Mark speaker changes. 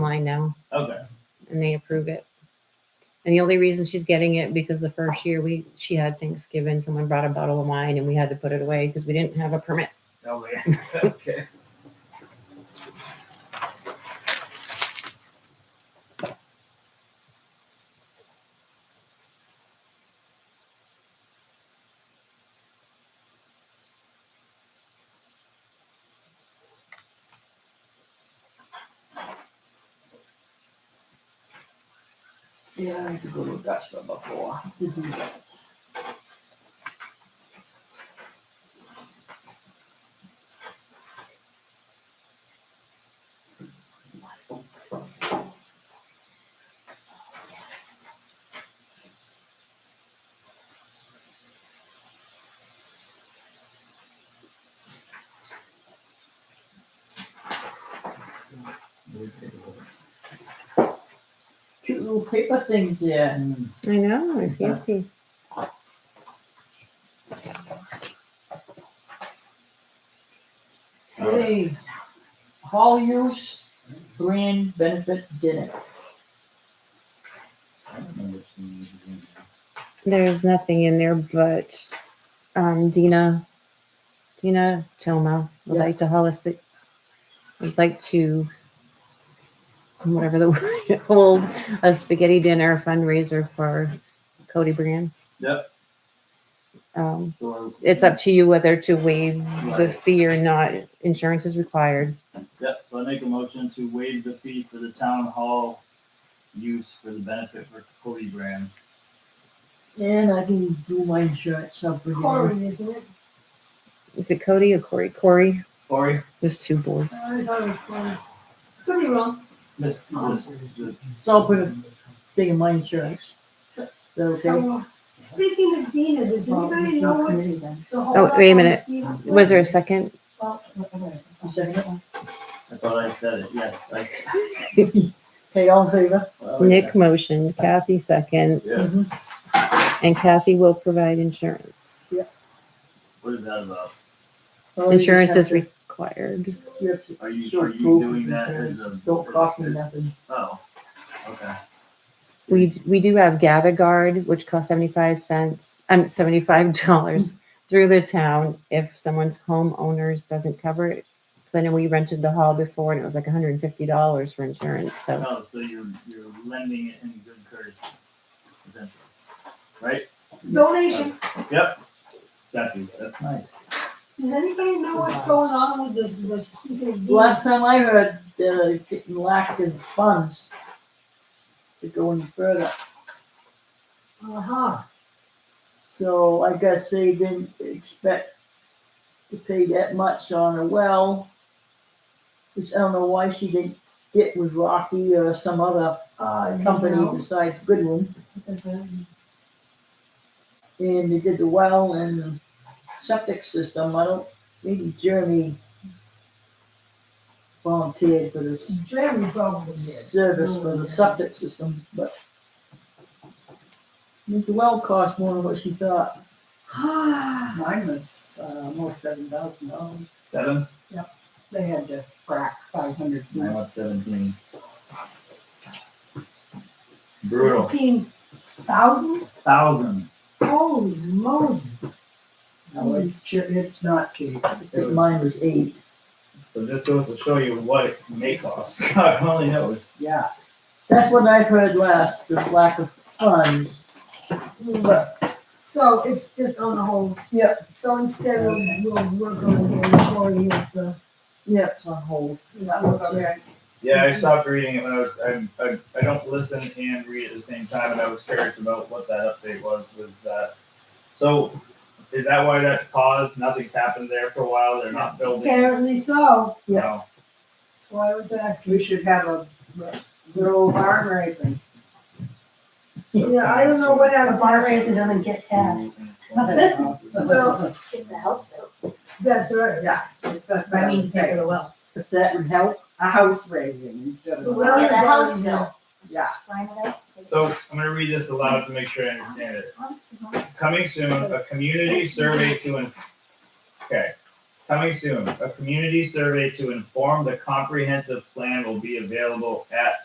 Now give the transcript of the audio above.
Speaker 1: online now
Speaker 2: Okay.
Speaker 1: and they approve it. And the only reason she's getting it because the first year we, she had Thanksgiving, someone brought a bottle of wine and we had to put it away because we didn't have a permit.
Speaker 2: Okay. Oh, okay. Yeah, I could go to Augusta before.
Speaker 3: Cute little paper things there.
Speaker 1: I know, I fancy.
Speaker 3: Hey, hall use brand benefit dinner.
Speaker 2: I don't remember seeing these again.
Speaker 1: There's nothing in there but, um, Dina, Dina Toma would
Speaker 3: Yeah.
Speaker 1: like to holistic, would like to, whatever the word, is, hold a spaghetti dinner fundraiser for Cody Brand.
Speaker 2: Yep.
Speaker 1: Um,
Speaker 2: So I-
Speaker 1: it's up to you whether to waive the
Speaker 2: Right.
Speaker 1: fee or not. Insurance is required.
Speaker 2: Yep, so I make a motion to waive the fee for the town hall use for the benefit for Cody Graham.
Speaker 3: And I can do my insurance stuff for you.
Speaker 4: Corey, isn't it?
Speaker 1: Is it Cody or Corey? Corey,
Speaker 2: Corey,
Speaker 1: there's two boards.
Speaker 4: I thought it was Corey. Could be wrong.
Speaker 2: this, this, this,
Speaker 3: So I'll put a thing in my insurance. Is
Speaker 4: So-
Speaker 3: that okay?
Speaker 4: So, speaking of Dina, does anybody know what's the whole?
Speaker 1: Oh, wait a minute. Was there a second?
Speaker 2: I thought I said it, yes. I s-
Speaker 3: Okay, all in favor?
Speaker 2: well,
Speaker 1: Nick motioned, Kathy second,
Speaker 2: Yeah,
Speaker 3: Mhm.
Speaker 1: and Kathy will provide insurance.
Speaker 2: what is that about?
Speaker 3: Well, Oh, you just
Speaker 1: Insurance
Speaker 3: have
Speaker 1: is
Speaker 3: to-
Speaker 1: required.
Speaker 3: you have to
Speaker 2: Are you,
Speaker 3: show
Speaker 2: are you
Speaker 3: proof of
Speaker 2: doing that as
Speaker 3: insurance.
Speaker 2: a?
Speaker 3: Don't cost me nothing.
Speaker 2: Oh, okay.
Speaker 1: We, we do have GavaGuard, which costs 75 cents, um, $75 through the town if someone's homeowners doesn't cover it. 'Cause I know we rented the hall before and it was like $150 for insurance, so.
Speaker 2: Oh, so you're, you're lending it in good courtesy, essentially, right?
Speaker 4: Donation.
Speaker 2: Got you, that's nice.
Speaker 4: Does anybody know what's going on with this, this, speaking of Dina?
Speaker 3: Last time I heard, they're getting lacked in funds to go any further.
Speaker 4: Uh-huh.
Speaker 3: So I guess they didn't expect to pay that much on a well, which I don't know why she didn't get with Rocky or some other
Speaker 4: Uh, you
Speaker 3: company
Speaker 4: know,
Speaker 3: besides Goodwin.
Speaker 4: because, um,
Speaker 3: And they did the well and the septic system. I don't, maybe Jeremy volunteered for this
Speaker 4: Jeremy probably did.
Speaker 3: service for the septic system, but I think the well cost more than what she thought.
Speaker 5: Mine was uh, almost seven thousand dollars.
Speaker 2: Seven?
Speaker 5: They had to frack five hundred feet.
Speaker 2: Mine was seventeen. Brutal.
Speaker 4: Seventeen thousand?
Speaker 2: Thousand.
Speaker 4: Holy Moses.
Speaker 5: No, it's che- it's not cheap.
Speaker 3: I
Speaker 2: It
Speaker 3: think
Speaker 2: was-
Speaker 3: mine was eight.
Speaker 2: So just goes to show you what it may cost. God only knows.
Speaker 5: Yeah,
Speaker 3: That's what I've heard last, the lack of funds. But
Speaker 4: So it's just on the whole.
Speaker 3: Yep.
Speaker 4: So instead of, we'll work over here, Corey is the,
Speaker 3: yeah, it's on hold.
Speaker 4: is work over there.
Speaker 2: Yeah, I stopped reading it when I was. I, I, I don't listen and read at the same time, and I was curious about what that update was with that. So, is that why that's paused? Nothing's happened there for a while. They're not building.
Speaker 4: Apparently so.
Speaker 2: No.
Speaker 4: That's why I was asking.
Speaker 5: we should have a little arm raising.
Speaker 4: Yeah, I don't know what else bar raising doesn't get that.
Speaker 2: Mm-hmm.
Speaker 5: Well,
Speaker 4: It's a house bill. That's right.
Speaker 5: yeah, it's- that's what I mean, say
Speaker 4: a well.
Speaker 3: If that would help,
Speaker 5: a house raising instead of. a-
Speaker 4: Well,
Speaker 6: Yeah, the house
Speaker 4: is already-
Speaker 6: bill.
Speaker 5: Yeah,
Speaker 2: So I'm going to read this aloud to make sure I understand it. Coming soon, a community survey to in- okay. Coming soon, a community survey to inform the comprehensive plan will be available at